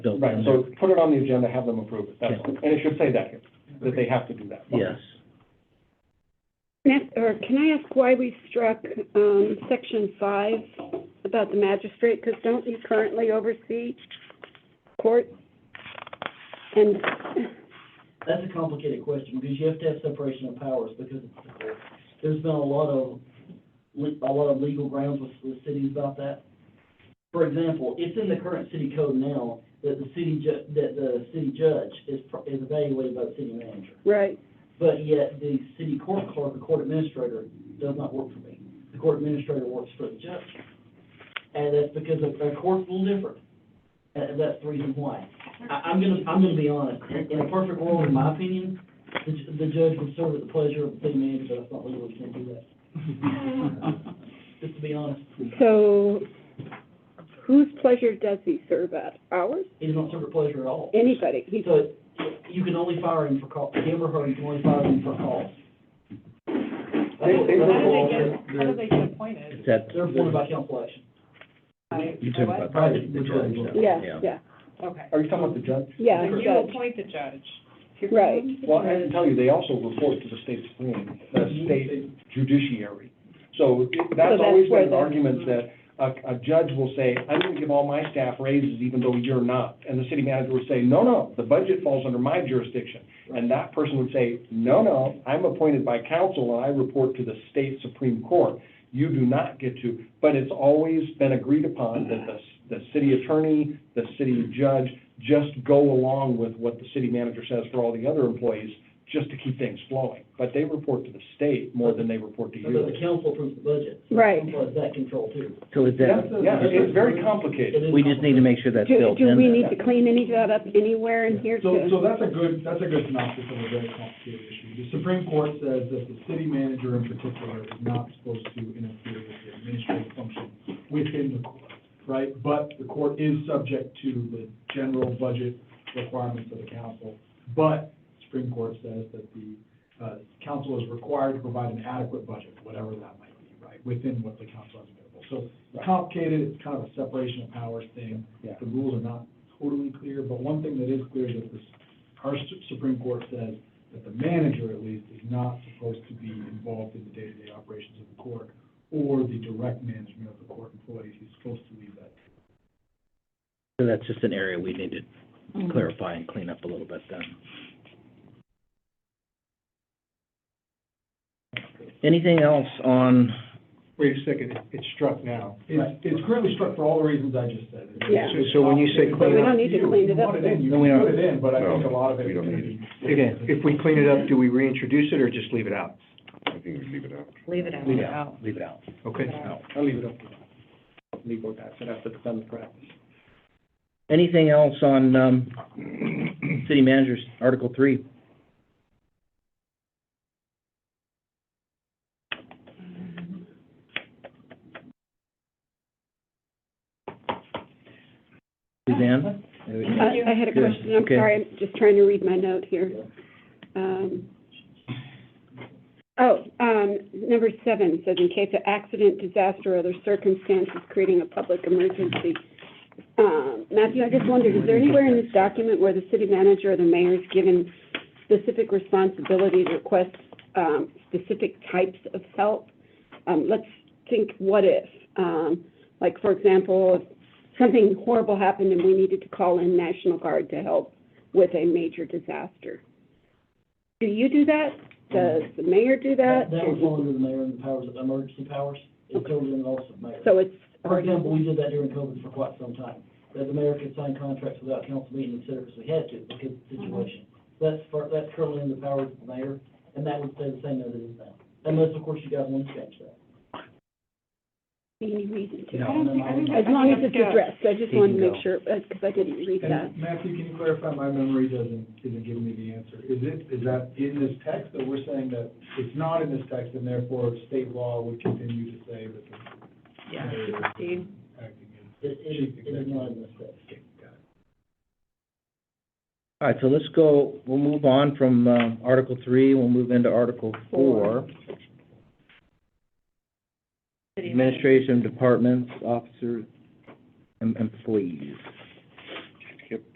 built in Right, there. so put it on the agenda, have them approve it, that's all. And it should say that here, that they have to do that. Yes, Can I- Or can I ask why we struck um, section five about the magistrate? Because don't you currently oversee court? And, That's a complicated question, because you have to have separation of powers, because there's been a lot of, le- a lot of legal grounds with, with cities about that. For example, it's in the current city code now that the city ju, that the city judge is, pr- is evaluated by the city manager. right, But yet, the city court clerk, the court administrator, does not work for me. The court administrator works for the judge. And that's because of, our court's a little different. And and that's the reason why. I, I'm gonna, I'm gonna be honest, in a perfect world, in my opinion, the, ju- the judge would serve at the pleasure of the city manager, but that's not legal, we can't do that. Just to be honest, so whose pleasure does he serve at? Ours? he does not serve at pleasure at all. Anybody? He's, So, you can only fire him for cause, him or her, you can only fire him for cause. That's They- what- they that's How do what- they get, how do they get appointed? it's at, They're appointed by council action. you're talking about By the the judge now. yeah, yeah, Okay. Are you talking about the judge? yeah, And you judge. appoint the judge. Right. Well, I can tell you, they also report to the state supreme, the Mm-hmm. state judiciary. So that's that's always where been an the- argument that a, a judge will say, I'm gonna give all my staff raises even though you're not. And the city manager would say, no, no, the budget falls under my jurisdiction. And that person would say, no, no, I'm appointed by council and I report to the state supreme court. You do not get to, but it's always been agreed upon that the, the city attorney, the city judge, just go along with what the city manager says for all the other employees, just to keep things flowing. But they report to the state more than they report to So that the you. council approves the budget. so the Right. Council has that control too. So is Yeah, that, yeah, it's very It complicated. is we just need to make sure that's Do, built in do we there. need to clean any of that up anywhere in here So, too? so that's a good, that's a good synopsis of a very complicated issue. The Supreme Court says that the city manager in particular is not supposed to interfere with the administrative function within the court, right? But the court is subject to the general budget requirements of the council. But Supreme Court says that the, uh, council is required to provide an adequate budget, whatever that might be, right? Within what the council has available. So it's complicated, it's kind of a separation of powers thing. Yeah. The rules are not totally clear, but one thing that is clear is that this, our Su- Supreme Court says that the manager at least is not supposed to be involved in the day-to-day operations of the court or the direct management of the court employees. He's supposed to leave that. So that's just an area we need to Mm-hmm. clarify and clean up a little bit then. Anything else on, Wait a second, it- it's struck now. It's, it's currently struck for all the reasons I just said. It's- Yeah. So- so when you say clean up- We don't need to You- clean it up You want it in, you No, we can don't. put it in, but I think a No, lot of it we is don't gonna need be. If, if we clean it up, do we reintroduce it or just leave it out? I think we leave it out. Leave it out. leave it out, leave it out. Okay. I'll leave it up to them. Legal guys, I'd have to defend the practice. Anything else on, um, city managers, Article Three? Suzanne? Uh, I, I had a Yeah, question, I'm okay. sorry, I'm just trying to read my note here. Um, Oh, um, number seven says in case of accident, disaster, or other circumstances creating a public emergency. Um, Matthew, I just wondered, is there anywhere in this document where the city manager or the mayor is given specific responsibility to request, um, specific types of help? Um, let's think, what if, um, like, for example, if something horrible happened and we needed to call in National Guard to help with a major disaster. Do you do that? Does the mayor do that? That would fall under the mayor and the powers, of emergency powers. It's over in the office of mayor. So it's, For example, we did that during COVID for quite some time, that the mayor could sign contracts without council meeting, et cetera, because we had to, because of the Mm-hmm. situation. That's, for- that's currently in the powers of the mayor, and that would stay the same as it is now. Unless, of course, you guys want to change that. any reason to. I don't think, I think. As long as it's addressed, I just wanted to There you go. make sure, because I didn't read that. And Matthew, can you clarify, my memory doesn't, isn't giving me the answer. Is it, is that in this text, that we're saying that it's not in this text, and therefore state law would continue to say that the mayor is acting It, it, it is not a mistake. as, okay, got it. All right, so let's go, we'll move on from, um, Article Three, we'll move into Article Four. Administration departments, officer, and employees.